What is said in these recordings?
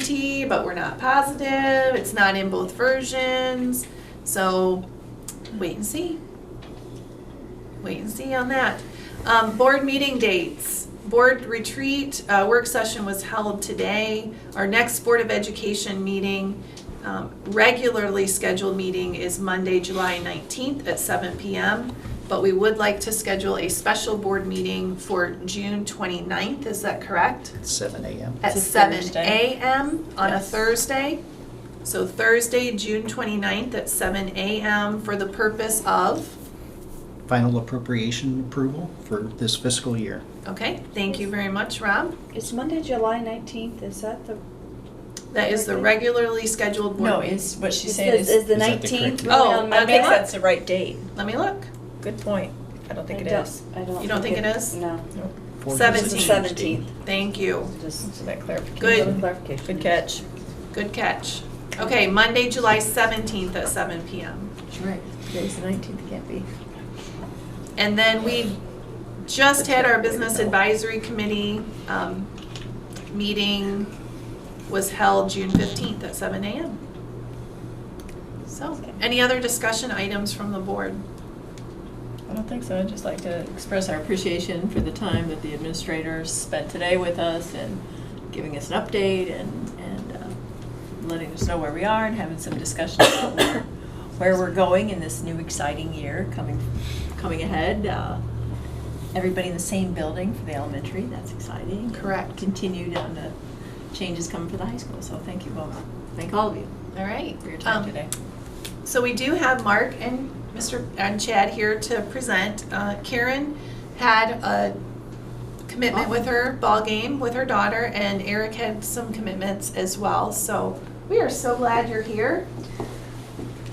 certainty, but we're not positive, it's not in both versions, so wait and see. Wait and see on that. Um, board meeting dates, board retreat, uh, work session was held today. Our next Board of Education meeting, um, regularly scheduled meeting is Monday, July nineteenth at seven PM. But we would like to schedule a special board meeting for June 29th. is that correct? seven AM. At It's a seven Thursday. AM on a Yes. Thursday. So Thursday, June 29th at seven AM for the purpose of, Final appropriation approval for this fiscal year. okay, thank you very much, Rob. It's Monday, July nineteenth, is that the? That is the regularly scheduled board No, meeting. it's what she's is saying the- is, the Is that the correct- nineteenth really Oh, on I Monday? think okay. that's the right date. Let me look. Good point. I don't think it don't- is. I don't. You don't think it is? No, Fourth is a Seventeenth. it's the Tuesday. seventeenth, Thank you. just So that clarification. Good. little clarification. Good catch. Good catch. Okay, Monday, July 17th at seven PM. Right. Today's the nineteenth, can't be. And then we just had our business advisory committee um, meeting was held June 15th at seven AM. So, any other discussion items from the board? I don't think so. I'd just like to express our appreciation for the time that the administrators spent today with us and giving us an update and, and uh, letting us know where we are and having some discussion about where, where we're going in this new exciting year coming, coming ahead. Uh, Everybody in the same building for the elementary, that's exciting. Correct. Continued on the changes coming for the high school, so thank you both. Thank all of you All right. for your time Um, today. So we do have Mark and Mr., and Chad here to present. Uh, Karen had a commitment with her ball game with her daughter, and Eric had some commitments as well. So we are so glad you're here.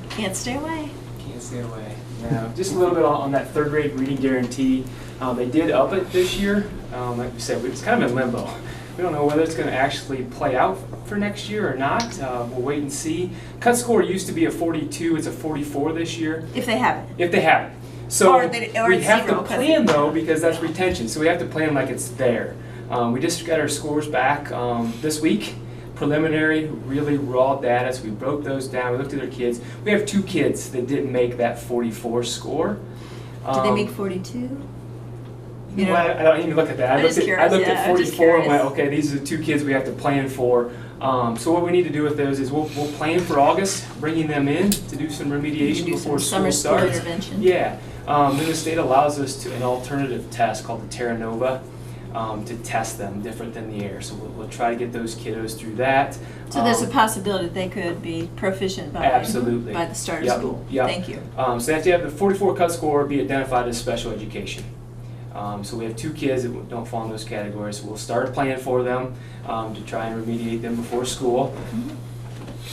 Can't stay away. Can't stay away. Now, just a little bit on, on that third grade reading guarantee. Um, they did up it this year. Um, like we said, it's kind of in limbo. We don't know whether it's going to actually play out for next year or not. Uh, we'll wait and see. Cut score used to be a 42. It's a 44 this year If they haven't. if they have it. So Or they- or we it's have zero, to 'cause- plan though because that's retention. So we have to plan like it's there. Um, we just got our scores back um, this week. Preliminary, really raw data. So we broke those down. We looked at their kids. We have two kids that didn't make that 44 score. Did they Um, make forty-two? you know, I, I don't even look at that. I, I'm looked just at, curious, I looked yeah, at I'm just 44 and went, curious. okay, these are the two kids we have to plan for. Um, so what we need to do with those is we'll, we'll plan for August, bringing them in to do some remediation do before some summer school school starts. intervention. Yeah, um, then the state allows us to an alternative test called the Terra Nova um, to test them different than the air. So we'll, we'll try to get those kiddos through that. So there's a Um, possibility that they could be proficient by, Absolutely. by the start of Yep, school? yep. Thank you. Um, so they have to have the 44 cut score be identified as special education. Um, so we have two kids that don't fall in those categories. We'll start a plan for them um, to try and remediate them before school,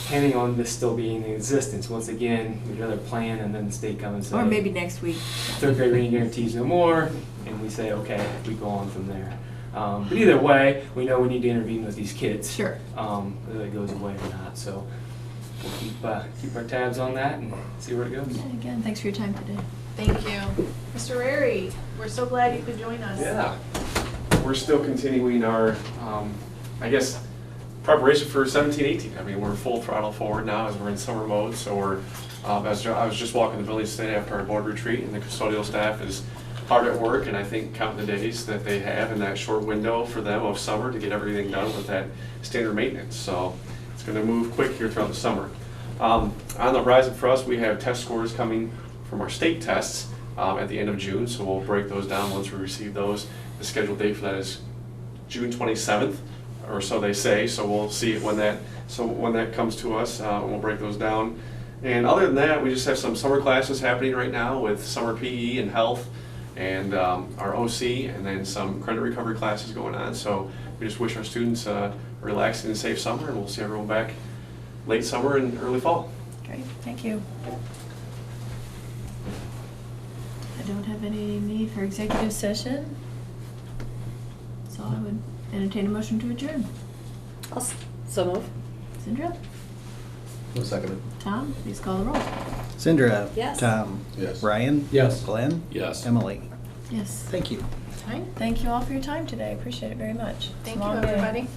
depending on this still being in existence. Once again, we'd rather plan and then the state comes and says, Or maybe next week. third grade reading guarantees no more, and we say, okay, we go on from there. Um, but either way, we know we need to intervene with these kids. Sure. Um, whether it goes away or not. So we'll keep, uh, keep our tabs on that and see where it goes. And again, thanks for your time today. Thank you. Mr. Rary, we're so glad you could join us. Yeah. We're still continuing our, um, I guess, preparation for 17, 18. I mean, we're full throttle forward now as we're in summer mode, so we're, um, as I was just walking the village today after our board retreat, and the custodial staff is hard at work, and I think counting the days that they have in that short window for them of summer to get everything done with that standard maintenance. So it's going to move quick here throughout the summer. Um, On the horizon for us, we have test scores coming from our state tests um, at the end of June, so we'll break those down once we receive those. The scheduled date for that is June 27th, or so they say, so we'll see it when that, so when that comes to us, uh, we'll break those down. And other than that, we just have some summer classes happening right now with summer PE and health and um, our OC, and then some credit recovery classes going on. So we just wish our students a relaxing and safe summer, and we'll see everyone back late summer and early fall. Great, thank you. I don't have any need for executive session. So I would entertain a motion to adjourn. I'll s- So move. Sandra? Tom, please call the roll. Sindra. Yes. Tom. Yes. Ryan. Yes. Glenn. Yes. Emily. Yes. Thank you. All right. Thank you all for your time today. Appreciate it very much. It's a Thank you, long day. everybody.